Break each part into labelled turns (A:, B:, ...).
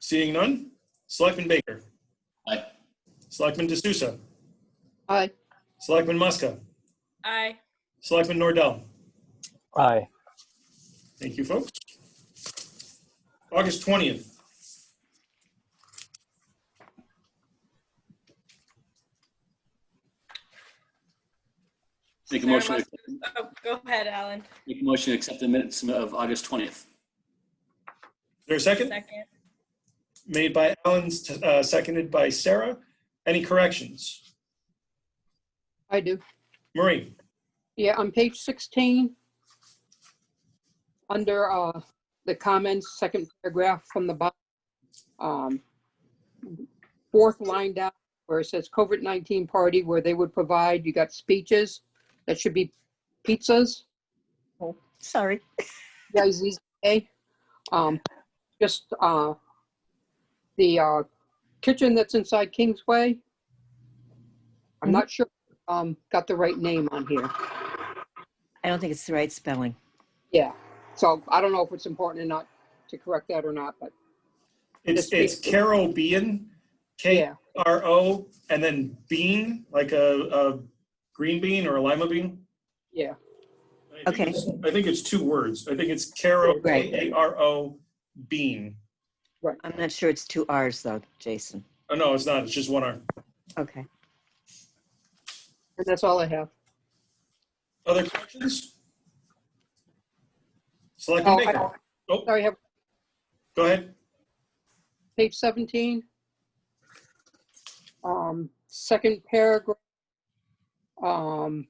A: Seeing none, Selectman Baker.
B: Aye.
A: Selectman D'Souza.
C: Aye.
A: Selectman Muska.
D: Aye.
A: Selectman Nordell.
E: Aye.
A: Thank you, folks. August 20th.
B: Make a
D: Sarah
B: motion,
D: wants to- Oh, go ahead, Alan.
B: make a motion to accept the minutes of August 20th.
A: Is there a second?
D: Second.
A: Made by Alan, uh, seconded by Sarah. Any corrections?
C: I do.
A: Marie?
C: Yeah, on page 16, under uh, the comments, second paragraph from the bottom, um, fourth line down, where it says COVID-19 party where they would provide, you got speeches, that should be pizzas,
F: Sorry.
C: PIZZA. Um, Just uh, the uh, kitchen that's inside Kingsway. I'm not sure, um, got the right name on here.
F: I don't think it's the right spelling.
C: Yeah, so I don't know if it's important or not to correct that or not, but
A: It's, it's
C: Yes, please.
A: Carobean, K
C: yeah,
A: R O, and then bean, like a, a green bean or a lima bean.
C: yeah,
A: I think
F: Okay.
A: it's- I think it's two words. I think it's Caro,
F: Right.
A: K A R O, bean.
F: I'm not sure it's two R's though, Jason.
A: Oh, no, it's not. It's just one R.
F: Okay.
C: and that's all I have.
A: Other corrections? Selectman
C: Oh, I-
A: Baker, Oh.
C: Sorry, I have
A: go ahead.
C: page 17. Um, Second paragraph. Um,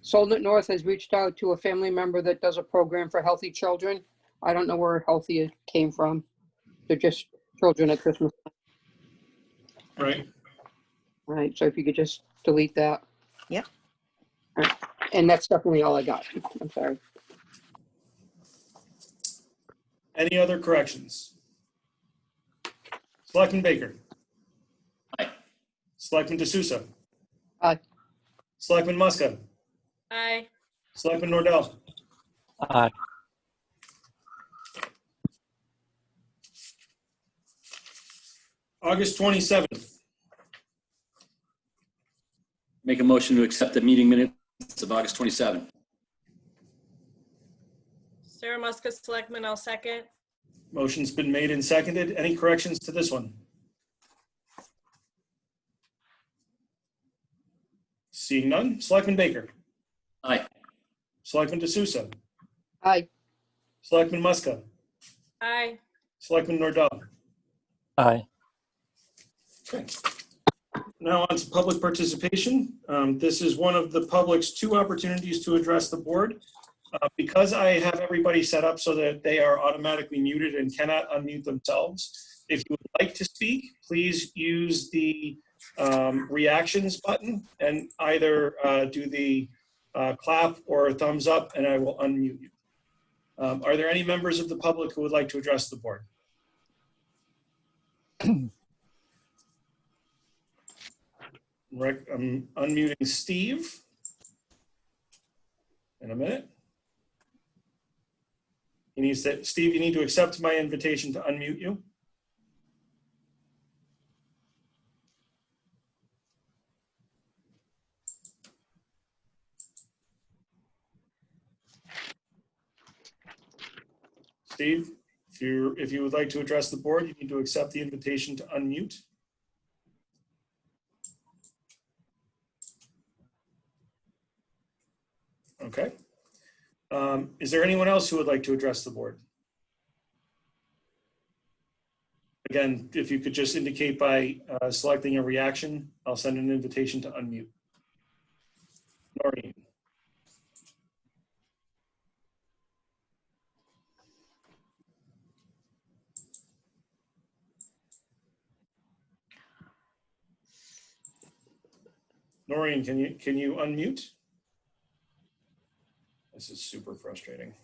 C: Solent North has reached out to a family member that does a program for healthy children. I don't know where healthy came from. They're just children at Christmas.
A: Right.
C: All right, so if you could just delete that.
F: Yep.
C: All right, And that's definitely all I got. I'm sorry.
A: Any other corrections? Selectman Baker.
B: Aye.
A: Selectman D'Souza.
C: Aye.
A: Selectman Muska.
D: Aye.
A: Selectman Nordell.
E: Aye.
A: August 27th.
B: Make a motion to accept the meeting minutes of August 27th.
D: Sarah Muska, Selectman, I'll second.
A: Motion's been made and seconded. Any corrections to this one? Seeing none, Selectman Baker.
B: Aye.
A: Selectman D'Souza.
C: Aye.
A: Selectman Muska.
D: Aye.
A: Selectman Nordell.
E: Aye.
A: Okay. Now on to public participation. Um, This is one of the public's two opportunities to address the board. Uh, Because I have everybody set up so that they are automatically muted and cannot unmute themselves, if you would like to speak, please use the um, reactions button and either uh, do the uh, clap or thumbs up, and I will unmute you. Um, Are there any members of the public who would like to address the board? Rec- I'm unmuting Steve. In a minute. He needs to, Steve, you need to accept my invitation to unmute you. Steve, if you, if you would like to address the board, you need to accept the invitation to unmute. Okay. Um, Is there anyone else who would like to address the board? Again, if you could just indicate by uh, selecting a reaction, I'll send an invitation to unmute. Noreen, Noreen, can you, can you unmute? This is super frustrating.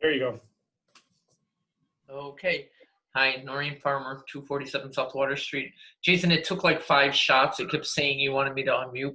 A: There you go.
G: Okay. Hi, Noreen Farmer, 247 South Water Street. Jason, it took like five shots. It kept saying you wanted me to unmute,